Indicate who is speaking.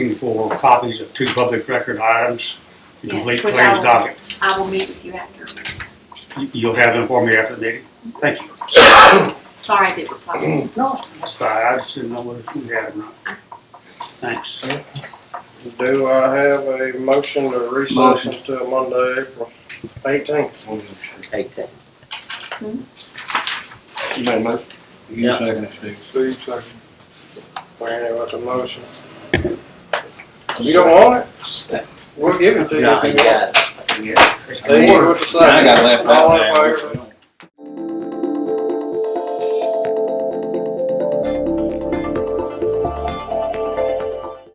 Speaker 1: looking for copies of two public record items, the
Speaker 2: Yes,
Speaker 1: complete
Speaker 2: which
Speaker 1: claims
Speaker 2: I will-
Speaker 1: docket.
Speaker 2: I will meet with you after.
Speaker 1: You- You'll have them for me after the meeting? Thank you.
Speaker 2: Sorry, I didn't reply.
Speaker 1: No, that's fine, I just didn't know whether we had or not. Thanks.
Speaker 3: Do I have a motion to recess
Speaker 4: Motion.
Speaker 3: until Monday, April eighteenth?
Speaker 5: Eighteen.
Speaker 4: You made a motion?
Speaker 5: Yeah.
Speaker 4: second it, Steve.
Speaker 3: Steve, second. Randy with the motion. You don't want it? We'll give it to you
Speaker 5: No,
Speaker 3: if
Speaker 5: he
Speaker 3: you want.
Speaker 5: got it.
Speaker 3: Steve with the
Speaker 4: I
Speaker 3: second.
Speaker 4: got left
Speaker 3: All
Speaker 4: out
Speaker 3: in favor?
Speaker 4: there.